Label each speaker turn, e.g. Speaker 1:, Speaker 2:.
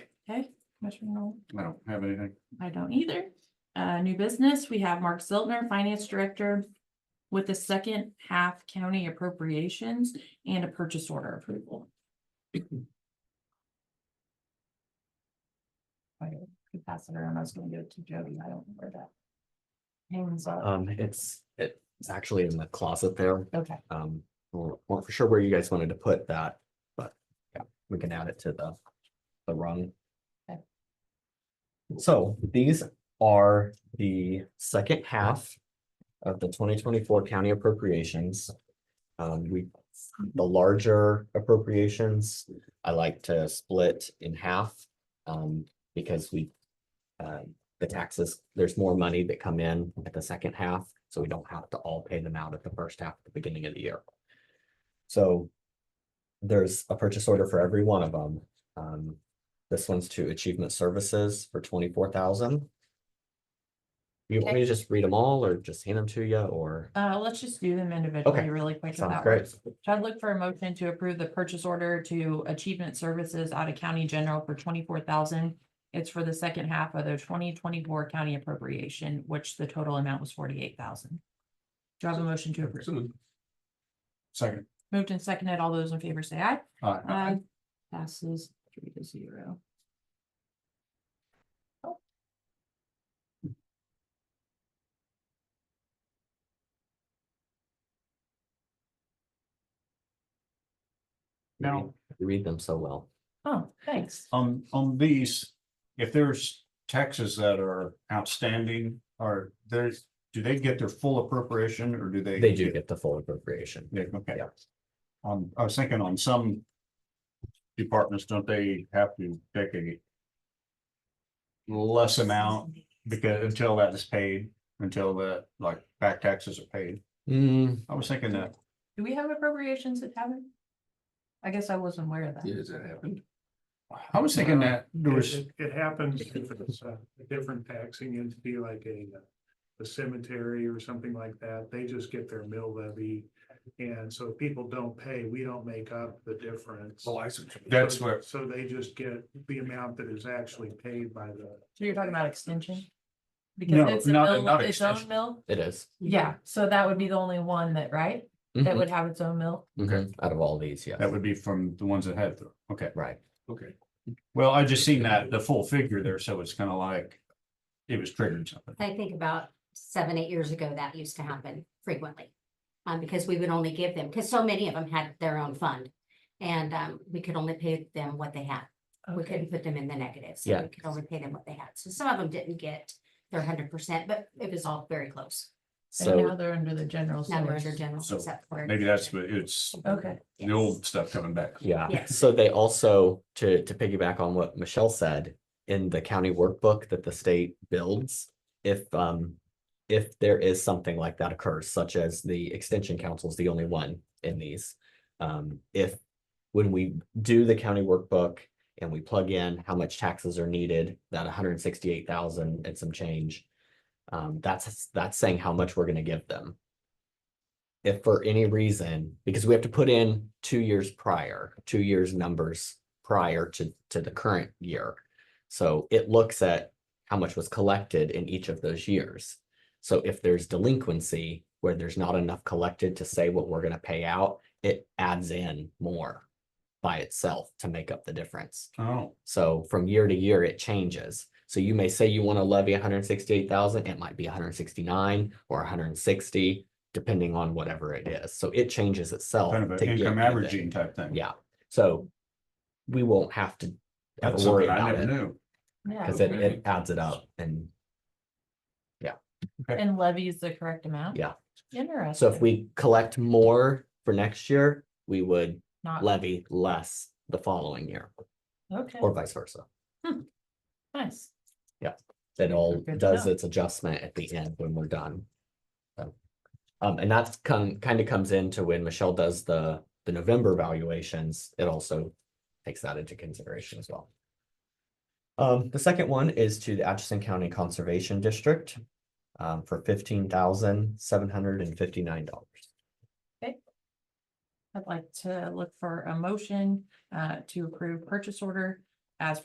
Speaker 1: Okay, Commissioner Noll?
Speaker 2: I don't have anything.
Speaker 1: I don't either. Uh, new business, we have Mark Ziltner, Finance Director. With the second half county appropriations and a purchase order approval. I could pass it around, I was gonna give it to Jody, I don't know where that. Hangs up,
Speaker 3: Um, it's, it's actually in the closet there.
Speaker 1: okay,
Speaker 3: Um, we're, weren't for sure where you guys wanted to put that, but yeah, we can add it to the, the rung.
Speaker 1: Okay.
Speaker 3: So these are the second half of the twenty twenty-four county appropriations. Um, we, the larger appropriations, I like to split in half, um, because we, um, the taxes, there's more money that come in at the second half, so we don't have to all pay them out at the first half at the beginning of the year. So there's a purchase order for every one of them. Um, this one's to Achievement Services for twenty-four thousand. You want me to just read them all or just hand them to you or?
Speaker 1: uh, let's just do them individually really quick. if
Speaker 3: Sounds
Speaker 1: that
Speaker 3: great.
Speaker 1: works. So I'd look for a motion to approve the purchase order to Achievement Services out of County General for twenty-four thousand. It's for the second half of the twenty twenty-four county appropriation, which the total amount was forty-eight thousand. Do you have a motion to approve?
Speaker 2: Second.
Speaker 1: Moved and seconded. All those in favor say aye.
Speaker 2: Aye.
Speaker 1: Passes three to zero.
Speaker 2: Now,
Speaker 3: You read them so well.
Speaker 1: Oh, thanks.
Speaker 2: on, on these, if there's taxes that are outstanding, are there's, do they get their full appropriation or do they?
Speaker 3: They do get the full appropriation.
Speaker 2: Yeah, okay.
Speaker 3: Yeah.
Speaker 2: On, I was thinking on some departments, don't they have to take a less amount because until that is paid, until the, like, back taxes are paid?
Speaker 3: Hmm,
Speaker 2: I was thinking that.
Speaker 1: Do we have appropriations that haven't? I guess I wasn't aware of that.
Speaker 2: Yes, that happened. I was thinking that there was.
Speaker 4: It it happens if it's a a different taxing entity like a, uh, a cemetery or something like that. They just get their mill levy. And so if people don't pay, we don't make up the difference.
Speaker 2: That's
Speaker 4: So-
Speaker 2: what,
Speaker 4: So they just get the amount that is actually paid by the.
Speaker 1: So you're talking about extension?
Speaker 2: No,
Speaker 1: Because it's a
Speaker 2: not-
Speaker 1: mill,
Speaker 2: not
Speaker 1: its own
Speaker 2: extension.
Speaker 1: mill?
Speaker 3: it is.
Speaker 1: Yeah, so that would be the only one that, right? That
Speaker 3: Mhm,
Speaker 1: would have its own mill?
Speaker 3: mhm. Out of all these, yeah.
Speaker 2: that would be from the ones that had, the- okay.
Speaker 3: Right.
Speaker 2: Okay. Well, I just seen that, the full figure there, so it's kind of like it was triggering something.
Speaker 5: I think about seven, eight years ago, that used to happen frequently. Um, because we would only give them, because so many of them had their own fund. And, um, we could only pay them what they had. We couldn't put them in the negative. So
Speaker 3: Yeah.
Speaker 5: we could only pay them what they had. So some of them didn't get their hundred percent, but it was all very close.
Speaker 1: And now
Speaker 3: So,
Speaker 1: they're under the general.
Speaker 5: Now they're
Speaker 1: sewer.
Speaker 5: under general
Speaker 2: So
Speaker 5: except for.
Speaker 2: Maybe that's, what it's
Speaker 1: Okay,
Speaker 2: the old stuff coming back.
Speaker 3: yeah,
Speaker 5: Yes.
Speaker 3: so they also, to, to piggyback on what Michelle said, in the county workbook that the state builds, if, um, if there is something like that occurs, such as the extension council is the only one in these. Um, if, when we do the county workbook and we plug in how much taxes are needed, that hundred and sixty-eight thousand and some change, um, that's, that's saying how much we're gonna give them. if for any reason, because we have to put in two years prior, two years numbers prior to, to the current year. So it looks at how much was collected in each of those years. So if there's delinquency where there's not enough collected to say what we're gonna pay out, it adds in more by itself to make up the difference.
Speaker 2: Oh,
Speaker 3: So from year to year, it changes. So you may say you want to levy hundred and sixty-eight thousand, it might be hundred and sixty-nine or hundred and sixty, depending on whatever it is. So it changes itself.
Speaker 2: kind of
Speaker 3: to
Speaker 2: an
Speaker 3: get
Speaker 2: income
Speaker 3: you there.
Speaker 2: averaging type thing.
Speaker 3: Yeah, so we won't have to ever
Speaker 2: That's
Speaker 3: worry
Speaker 2: something I
Speaker 3: about
Speaker 2: never
Speaker 3: it
Speaker 2: knew.
Speaker 1: yeah.
Speaker 3: because it, it adds it up and
Speaker 1: And levies the correct amount?
Speaker 3: Yeah.
Speaker 1: Interesting.
Speaker 3: so if we collect more for next year, we would
Speaker 1: Not,
Speaker 3: levy less the following year
Speaker 1: okay,
Speaker 3: or vice versa.
Speaker 1: nice.
Speaker 3: that all
Speaker 1: Good to
Speaker 3: does
Speaker 1: know.
Speaker 3: its adjustment at the end when we're done. So, Um, and that's come, kind of comes into when Michelle does the, the November valuations, it also takes that into consideration as well. Um, the second one is to the Atchison County Conservation District, um, for fifteen thousand seven hundred and fifty-nine dollars.
Speaker 1: I'd like to look for a motion uh to approve purchase order